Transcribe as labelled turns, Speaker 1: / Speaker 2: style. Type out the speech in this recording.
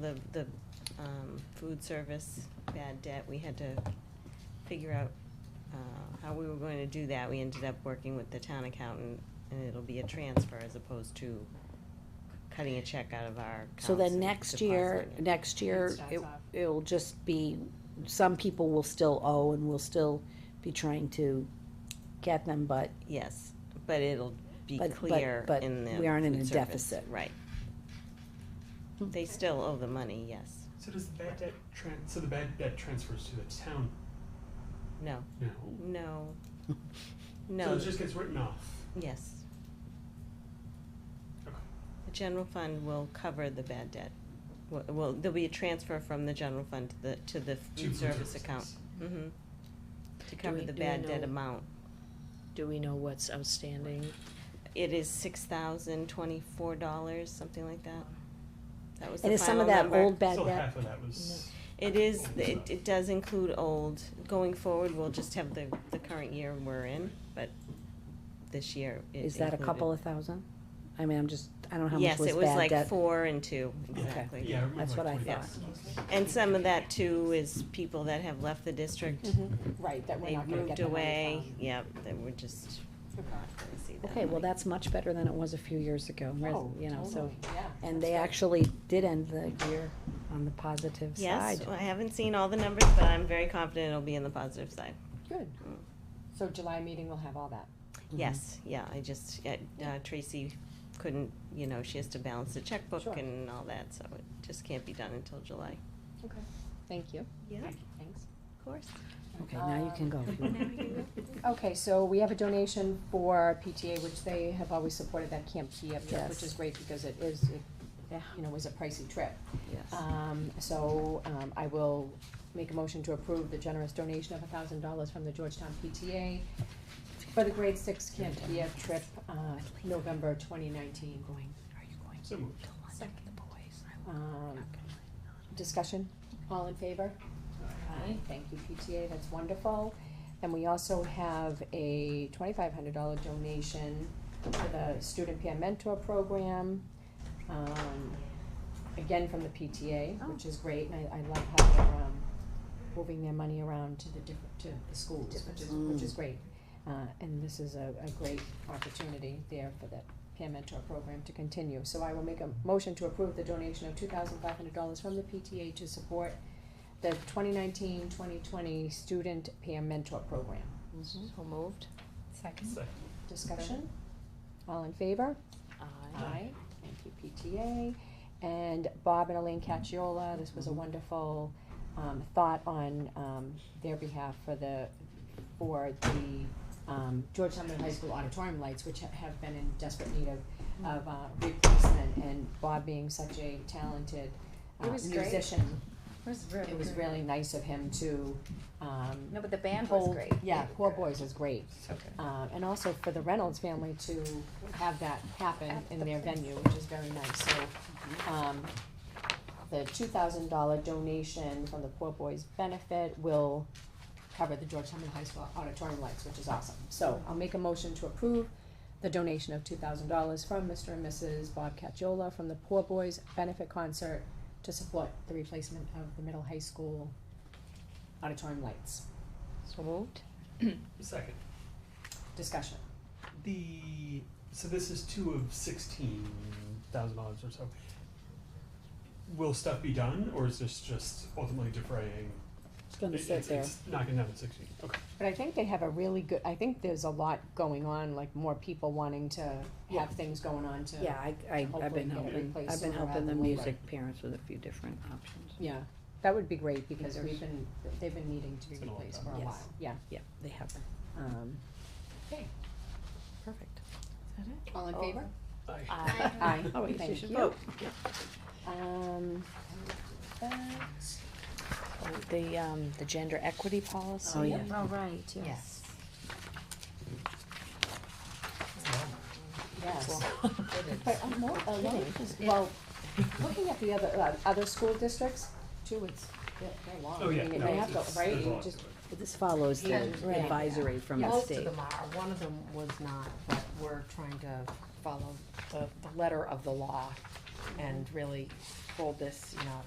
Speaker 1: The, the, um, food service bad debt, we had to figure out, uh, how we were going to do that. We ended up working with the town accountant, and it'll be a transfer as opposed to cutting a check out of our accounts.
Speaker 2: So then
Speaker 1: and
Speaker 2: next year,
Speaker 1: depositing it.
Speaker 2: next year,
Speaker 3: starts
Speaker 2: it,
Speaker 3: off.
Speaker 2: it'll just be, some people will still owe and we'll still be trying to get them, but
Speaker 1: Yes, but it'll be
Speaker 2: But- but-
Speaker 1: clear
Speaker 2: but
Speaker 1: in the
Speaker 2: we aren't in
Speaker 1: food
Speaker 2: a
Speaker 1: service.
Speaker 2: deficit.
Speaker 1: Right.
Speaker 2: Hmm.
Speaker 1: They still owe the money, yes.
Speaker 4: So does the bad debt tran- so the bad debt transfers to the town
Speaker 1: No,
Speaker 4: now?
Speaker 1: no,
Speaker 4: So
Speaker 1: no,
Speaker 4: it just gets written off.
Speaker 1: yes.
Speaker 4: Okay.
Speaker 1: The general fund will cover the bad debt. Well- Well, there'll be a transfer from the general fund to the, to the
Speaker 4: to
Speaker 1: food service account. hmm To cover
Speaker 3: we- do
Speaker 1: the
Speaker 3: we
Speaker 1: bad debt
Speaker 3: know-
Speaker 1: amount.
Speaker 3: Do we know what's outstanding?
Speaker 1: It is six thousand twenty-four dollars, something like that. That was
Speaker 2: And
Speaker 1: the
Speaker 2: is some
Speaker 1: final
Speaker 2: of that
Speaker 1: number.
Speaker 2: old bad
Speaker 4: Still
Speaker 2: debt?
Speaker 4: half of that was.
Speaker 1: It is,
Speaker 4: old
Speaker 1: it,
Speaker 4: stuff.
Speaker 1: it does include old. Going forward, we'll just have the, the current year we're in, but this year it
Speaker 2: Is that a
Speaker 1: included-
Speaker 2: couple of thousand? I mean, I'm just, I don't know how much
Speaker 1: Yes,
Speaker 2: was
Speaker 1: it was
Speaker 2: bad
Speaker 1: like
Speaker 2: debt.
Speaker 1: four and two,
Speaker 2: Okay.
Speaker 1: exactly.
Speaker 4: Yeah, I remember
Speaker 2: That's
Speaker 4: like
Speaker 2: what I
Speaker 4: 20
Speaker 1: thought.
Speaker 4: bucks.
Speaker 1: And some of that too is people that have left the district.
Speaker 5: Mm-hmm. Right, that we're
Speaker 1: They
Speaker 5: not gonna get
Speaker 1: moved
Speaker 5: the money
Speaker 1: away,
Speaker 5: from.
Speaker 1: yep, they were just not gonna see that.
Speaker 2: Okay, well,
Speaker 1: money.
Speaker 2: that's much better than it was a few years ago, whereas,
Speaker 5: Oh,
Speaker 2: you know, so.
Speaker 5: totally, yeah.
Speaker 2: And they actually did end the year on the positive
Speaker 1: Yes,
Speaker 2: side.
Speaker 1: I haven't seen all the numbers, but I'm very confident it'll be in the positive side.
Speaker 5: Good. So July meeting will have all that.
Speaker 1: Yes, yeah, I just, yeah, uh, Tracy couldn't, you know, she has to balance the checkbook
Speaker 5: Sure.
Speaker 1: and all that, so it just can't be done until July.
Speaker 5: Okay. Thank you.
Speaker 1: Yeah, of
Speaker 5: Thanks.
Speaker 1: course.
Speaker 2: Okay, now you can go. if you want.
Speaker 5: Okay, so we have a donation for PTA, which they have always supported that Camp Kiev trip,
Speaker 2: Yes.
Speaker 5: which is great because it is, it, eh, you know, was a pricey trip.
Speaker 2: Yes.
Speaker 5: Um, so, um, I will make a motion to approve the generous donation of a thousand dollars from the Georgetown PTA for the grade six Camp Kiev trip, uh, November twenty nineteen. Going, are you going?
Speaker 4: So moved.
Speaker 5: Um, discussion, all in favor? Aye. Thank you, PTA, that's wonderful. And we also have a twenty-five hundred dollar donation to the Student Peer Mentor Program. Um, again, from the PTA, which is great, and I, I love how they're, um, moving their money around to the different, to the schools, which is, which is great. Uh, and this is a, a great opportunity there for that peer mentor program to continue. So I will make a motion to approve the donation of two thousand five hundred dollars from the PTA to support the 2019-2020 student peer mentor program.
Speaker 3: So moved?
Speaker 4: Second.
Speaker 5: Discussion? All in favor?
Speaker 3: Aye.
Speaker 5: Thank you, PTA. And Bob and Elaine Cacciola, this was a wonderful, um, thought on, um, their behalf for the, for the, um, Georgetown Middle High School auditorium lights, which ha- have been in desperate need of, of, uh, replacement, and Bob being such a talented, uh,
Speaker 6: It was great.
Speaker 5: musician,
Speaker 6: It was really
Speaker 5: it was
Speaker 6: good.
Speaker 5: really nice of him to, um,
Speaker 6: No, but the band
Speaker 5: hold-
Speaker 6: was great.
Speaker 5: Yeah, Poor Boys is great.
Speaker 6: Okay.
Speaker 5: Um, and also for the Reynolds family to have that happen
Speaker 6: At
Speaker 5: in
Speaker 6: the
Speaker 5: their
Speaker 6: place.
Speaker 5: venue, which is very nice, so, um, the two thousand dollar donation from the Poor Boys Benefit will cover the Georgetown Middle High School auditorium lights, which is awesome. So I'll make a motion to approve the donation of two thousand dollars from Mr. and Mrs. Bob Cacciola from the Poor Boys Benefit Concert to support the replacement of the middle high school auditorium lights.
Speaker 3: So moved?
Speaker 4: Second.
Speaker 5: Discussion.
Speaker 4: The so this is two of sixteen thousand dollars or so. Will stuff be done, or is this just ultimately defraying?
Speaker 2: It's gonna
Speaker 4: it-
Speaker 2: sit
Speaker 4: it's,
Speaker 2: there.
Speaker 4: it's not gonna happen sixteen. Okay.
Speaker 5: But I think they have a really good, I think there's a lot going on, like more people wanting to
Speaker 2: Yeah.
Speaker 5: have things going on to.
Speaker 2: Yeah, I, I, I've
Speaker 5: Hopefully
Speaker 2: been
Speaker 5: get it
Speaker 2: helping,
Speaker 5: replaced
Speaker 2: I've been
Speaker 5: sooner rather
Speaker 2: helping the
Speaker 5: than later.
Speaker 2: music parents with a few different options.
Speaker 5: Yeah, that would be great because
Speaker 2: There's-
Speaker 5: we've been, they've been needing to be
Speaker 4: It's been a long
Speaker 5: replaced
Speaker 4: time.
Speaker 5: for a
Speaker 2: Yes.
Speaker 5: while, yeah.
Speaker 2: Yeah, they have them.
Speaker 5: Um,
Speaker 2: Perfect.
Speaker 5: All in favor?
Speaker 4: I,
Speaker 3: Aye.
Speaker 5: Aye,
Speaker 2: Oh, wait, you
Speaker 5: thank
Speaker 2: should
Speaker 5: you.
Speaker 2: vote.
Speaker 5: Um,
Speaker 3: Oh, The, um, the gender equity policy?
Speaker 2: Oh, yeah.
Speaker 6: All right, yes.
Speaker 3: Yes.
Speaker 5: yes. But I'm more, a lot of these- well, looking at the other, uh, other school districts, too, it's, they're they're long.
Speaker 4: oh yeah.
Speaker 5: I mean,
Speaker 4: no,
Speaker 5: they
Speaker 4: it's-
Speaker 5: have to,
Speaker 4: it's-
Speaker 5: right,
Speaker 4: there's a
Speaker 5: you
Speaker 4: lot to
Speaker 5: just-
Speaker 4: it.
Speaker 2: This follows the
Speaker 5: Right.
Speaker 2: advisory from the
Speaker 7: Most
Speaker 2: state.
Speaker 7: of them are, one of them was not, but we're trying to follow the, the letter of the law
Speaker 5: and really hold this, you know,